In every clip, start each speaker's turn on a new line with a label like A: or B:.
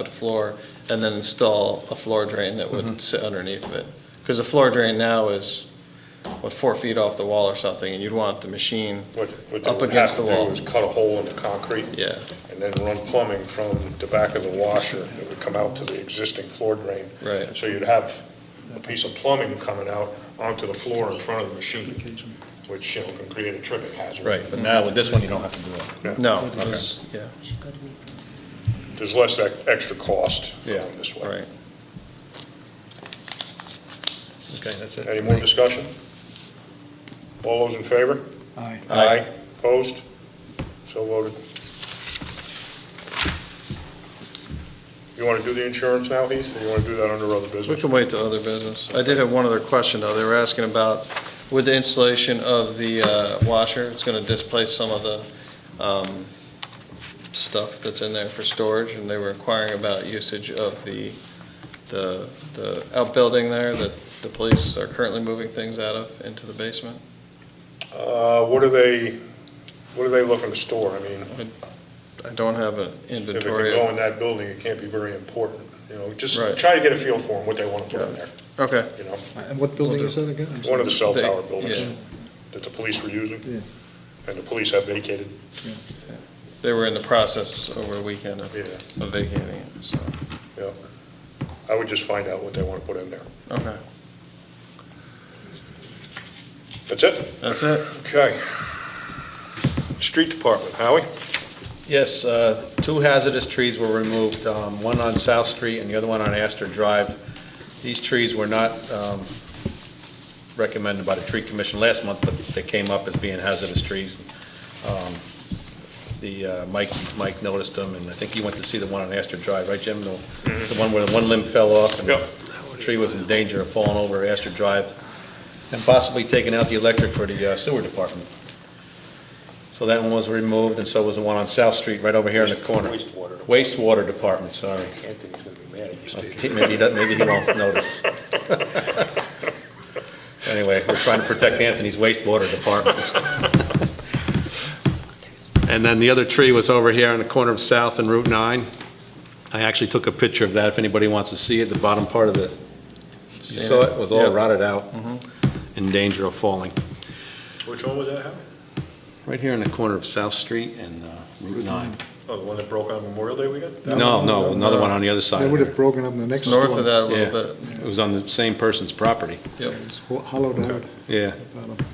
A: put a floor, and then install a floor drain that
B: Mm-hmm.
A: would sit underneath of it. Because the floor drain now is, what, four feet off the wall or something, and you'd want the machine,
C: What, what they
A: Up
C: would have
A: against
C: to
A: the
C: do
A: wall.
C: is cut a hole in the concrete
A: yeah,
C: and then run plumbing from the back of the washer that would come out to the existing floor drain.
A: right.
C: So you'd have a piece of plumbing coming out onto the floor in front of the machine, which, you know, can create a tripping hazard.
B: Right, but now with this one, you don't have to do it.
A: No, it was, yeah,
C: There's less that extra cost
A: Yeah,
C: going this way.
A: right.
B: Okay, that's it.
C: Any more discussion? All those in favor?
D: Aye.
A: Aye.
C: Opposed? So voted. You want to do the insurance now, Heath, or you want to do that under other
A: We
C: business?
A: can wait to other business. I did have one other question, though. They were asking about, with the installation of the uh, washer, it's going to displace some of the um, stuff that's in there for storage, and they were inquiring about usage of the, the the outbuilding there that the police are currently moving things out of into the basement.
C: Uh, What are they, what are they looking to store? I mean,
A: I don't have an
C: if it can
A: inventory.
C: go
A: of-
C: in that building, it can't be very important, you know, just
A: Right.
C: try to get a feel for them, what they want to put in there,
A: Okay,
C: you know?
D: And what building is that again? I'm
C: One of the cell
A: They-
C: tower buildings
A: yeah.
C: that the police were using,
D: Yeah.
C: and the police have vacated,
A: they were in the process over the weekend of
C: yeah,
A: of vacating it, so,
C: yeah. I would just find out what they want to put in there.
A: okay.
C: That's it?
A: That's it?
C: Okay. Street Department, Howie?
B: Yes, uh, two hazardous trees were removed, um, one on South Street and the other one on Astor Drive. These trees were not um, recommended by the tree commission last month, but they came up as being hazardous trees. Um, The, uh, Mike, Mike noticed them, and I think you went to see the one on Astor Drive, right, Jim? The the one where the one limb fell off and
C: Yep.
B: the tree was in danger of falling over Astor Drive and possibly taking out the electric for the uh, sewer department. So that one was removed, and so was the one on South Street, right over here in the corner.
C: Wastewater.
B: Wastewater Department, sorry.
C: Anthony's gonna be mad at you,
B: Okay, Maybe he doesn't, maybe he won't notice. Anyway, we're trying to protect Anthony's wastewater department. And then the other tree was over here on the corner of South and Route 9. I actually took a picture of that, if anybody wants to see it, the bottom part of it. You saw it, was all
A: Yep.
B: rotted out, in danger of falling.
C: Which one was that, Howie?
B: Right here on the corner of South Street and uh, Route 9.
C: Oh, the one that broke on Memorial Day weekend?
B: No, no, another one on the other side.
D: They would
B: there.
D: have broken up in the next
A: It's
D: one.
A: north of that a little
B: Yeah,
A: bit,
B: it was on the same person's property,
A: yep.
D: It's ho- hollowed out.
B: yeah.
D: bottom.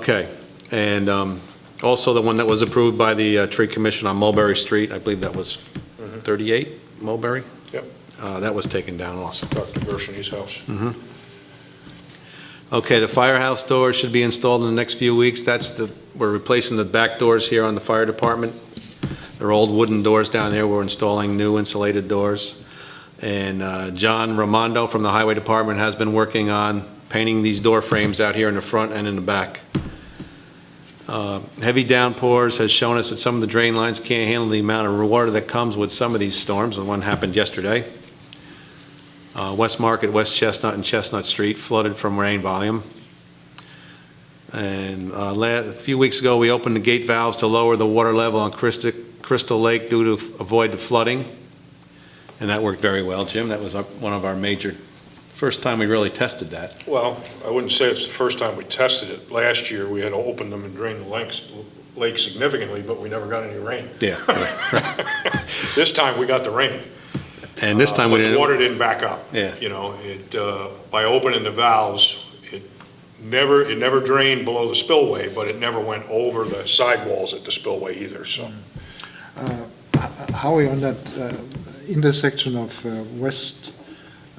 B: Okay, and um, also the one that was approved by the uh, Tree Commission on Mulberry Street, I believe that was 38 Mulberry?
C: Yep.
B: Uh, That was taken down also.
C: Dr. Gersheney's house.
B: Okay, the firehouse door should be installed in the next few weeks. That's the, we're replacing the back doors here on the fire department. They're old wooden doors down there. We're installing new insulated doors. And uh, John Ramondo from the highway department has been working on painting these door frames out here in the front and in the back. Uh, Heavy downpours has shown us that some of the drain lines can't handle the amount of water that comes with some of these storms, and one happened yesterday. Uh, West Market, West Chestnut, and Chestnut Street flooded from rain volume. And uh, la- a few weeks ago, we opened the gate valves to lower the water level on Christi- Crystal Lake due to f- avoid the flooding, and that worked very well, Jim. That was our- one of our major, first time we really tested that.
C: Well, I wouldn't say it's the first time we tested it. Last year, we had to open them and drain the lakes, lake significantly, but we never got any rain.
B: Yeah.
C: This time, we got the rain.
B: And this time we
C: But
B: didn't.
C: Uh, the water didn't back up.
B: Yeah.
C: You know, it, uh, by opening the valves, it never, it never drained below the spillway, but it never went over the sidewalls at the spillway either, so.
D: Uh, h- Howie, on that uh, intersection of uh, West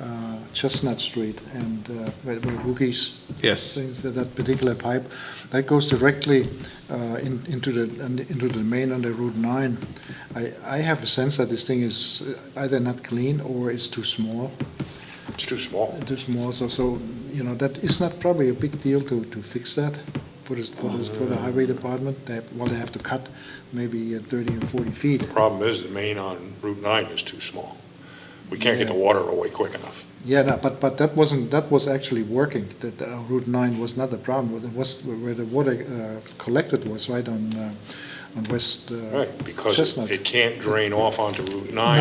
D: uh, Chestnut Street and uh, where where Wookiees
B: Yes.
D: things, that- that particular pipe, that goes directly uh, in- into the, and into the main under Route 9. I, I have a sense that this thing is uh, either not clean or it's too small,
C: It's too small.
D: too small, so, so, you know, that is not probably a big deal to, to fix that for the, for the, for the highway department, they, have- well, they have to cut maybe uh, 30 or 40 feet.
C: Problem is, the main on Route 9 is too small. We can't get the water away quick enough.
D: Yeah, no, but, but that wasn't, that was actually working, that uh, Route 9 was not a problem, it was, where the water uh, collected was right on, uh, on West uh,
C: Right, because
D: Chestnut.
C: it- it can't drain off onto Route 9